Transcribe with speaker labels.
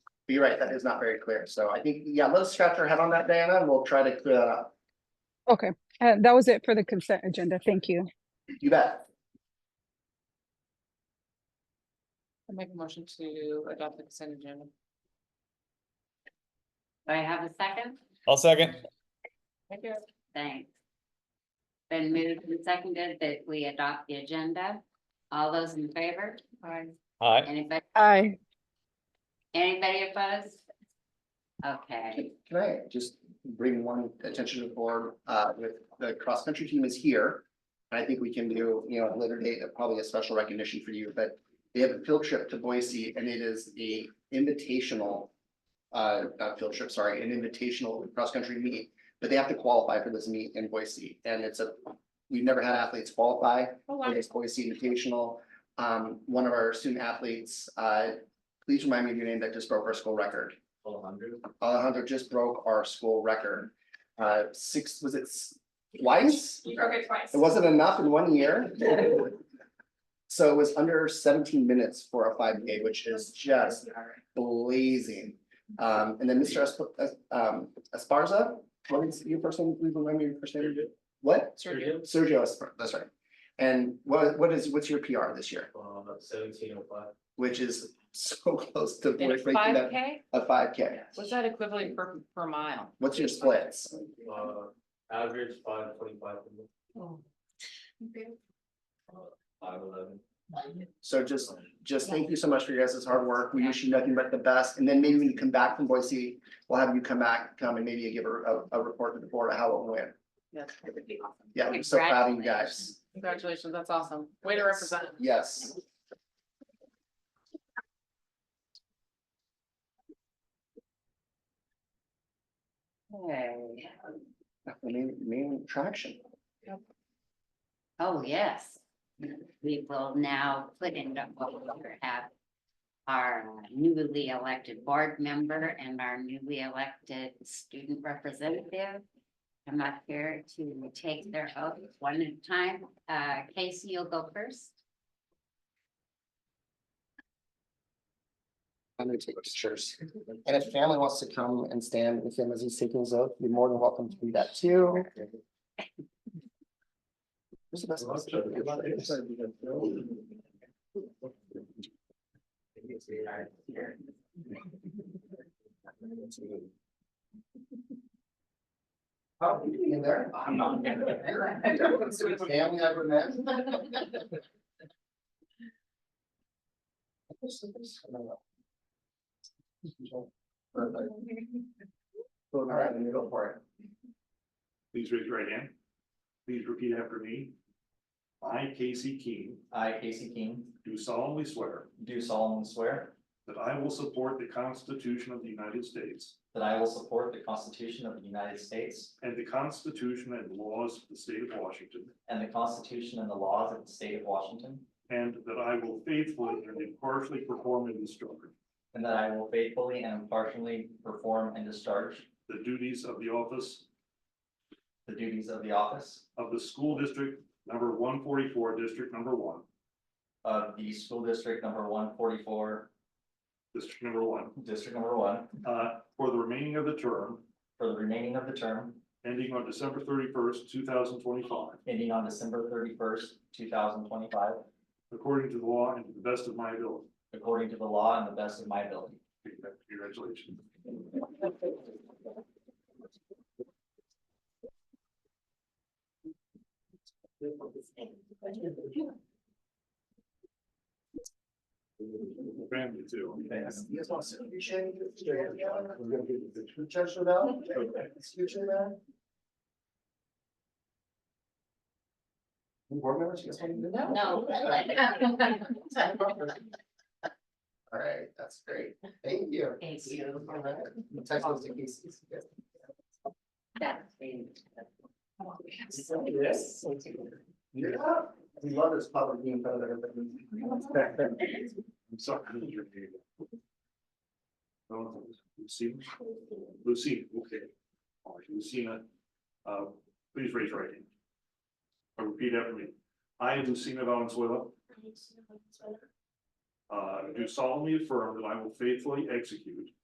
Speaker 1: But you're right, that is not very clear. So I think, yeah, let's scratch our head on that, Diana, and we'll try to clear that up.
Speaker 2: Okay, uh, that was it for the consent agenda. Thank you.
Speaker 1: You bet.
Speaker 3: I make a motion to adopt the consent agenda. Do I have a second?
Speaker 4: I'll second.
Speaker 3: Thank you.
Speaker 5: Thanks. Been moved and seconded that we adopt the agenda. All those in favor?
Speaker 3: Aye.
Speaker 4: Aye.
Speaker 5: Anybody,
Speaker 2: Aye.
Speaker 5: anybody opposed? Okay,
Speaker 1: Can I just bring one attention to the board, uh, with the cross-country team is here. And I think we can do, you know, at a later date, uh, probably a special recognition for you, but they have a field trip to Boise and it is a invitational. Uh, not field trip, sorry, an invitational cross-country meet, but they have to qualify for this meet in Boise and it's a. We've never had athletes qualify
Speaker 3: Oh,
Speaker 1: for
Speaker 3: wow.
Speaker 1: this Boise Invitational. Um, one of our student athletes, uh, please remind me of your name that just broke our school record. Alejandro just broke our school record. Uh, six, was it s- twice?
Speaker 3: You broke it twice.
Speaker 1: It wasn't enough in one year. So it was under seventeen minutes for a five K, which is just blazing. Um, and then Mr. Esp- Es- um, Esparza, what is your first name? Please remind me your first name. What?
Speaker 3: Sergio.
Speaker 1: Sergio, Espar- that's right. And what, what is, what's your PR this year?
Speaker 6: Uh, seventeen oh five.
Speaker 1: Which is so close to
Speaker 3: In a
Speaker 1: breaking
Speaker 3: five
Speaker 1: that,
Speaker 3: K,
Speaker 1: a five K.
Speaker 3: what's that equivalent per, per mile?
Speaker 1: What's your splits?
Speaker 6: uh, average five twenty-five,
Speaker 3: Oh.
Speaker 6: five eleven.
Speaker 1: So just, just thank you so much for your guys' hard work. We wish you nothing but the best. And then maybe when you come back from Boise, we'll have you come back, come and maybe give a, a, a report to the board of how it went.
Speaker 3: Yes, that would be awesome.
Speaker 1: Yeah, I'm so proud of you guys.
Speaker 3: Congratulations, that's awesome. Way to represent.
Speaker 1: Yes.
Speaker 5: Okay.
Speaker 1: Main, main attraction.
Speaker 5: oh, yes. We will now put in the- what we have. Our newly elected board member and our newly elected student representative. Come up here to take their oath one at a time. Uh, Casey, you'll go first.
Speaker 1: I'm gonna take pictures. And if family wants to come and stand with him as he's taking his oath, you're more than welcome to do that too. Who's the best person? How you doing in there? I'm not. Family ever met? Perfect. All right, then you go for it.
Speaker 7: Please raise your right hand. Please repeat after me. I, Casey Keene,
Speaker 8: I, Casey King,
Speaker 7: do solemnly swear
Speaker 8: do solemnly swear
Speaker 7: that I will support the Constitution of the United States
Speaker 8: that I will support the Constitution of the United States
Speaker 7: and the Constitution and laws of the state of Washington,
Speaker 8: and the Constitution and the laws of the state of Washington,
Speaker 7: and that I will faithfully and impartially perform and discharge
Speaker 8: and that I will faithfully and impartially perform and discharge
Speaker 7: the duties of the office
Speaker 8: the duties of the office
Speaker 7: of the school district number one forty-four, district number one,
Speaker 8: of the school district number one forty-four,
Speaker 7: district number one,
Speaker 8: district number one,
Speaker 7: uh, for the remaining of the term
Speaker 8: for the remaining of the term,
Speaker 7: ending on December thirty-first, two thousand twenty-five,
Speaker 8: ending on December thirty-first, two thousand twenty-five,
Speaker 7: according to the law and to the best of my ability.
Speaker 8: according to the law and the best of my ability.
Speaker 7: Congratulations. Family too.
Speaker 8: Thanks.
Speaker 1: You guys want to appreciate it? Judge Lavelle? Excuse me, man. Any Board members, you guys want to do that?
Speaker 5: No.
Speaker 1: All right, that's great. Thank you.
Speaker 5: Thank you.
Speaker 1: All right. Text those to Casey.
Speaker 5: That's been-
Speaker 1: Yes. You're up. We love this public being part of everybody.
Speaker 7: I'm sorry. I didn't hear you. Oh, Lucina, Lucina, okay. All right, Lucina, uh, please raise your right hand. Or Repeat after me. I, Lucina Valenzuela, uh, do solemnly affirm that I will faithfully execute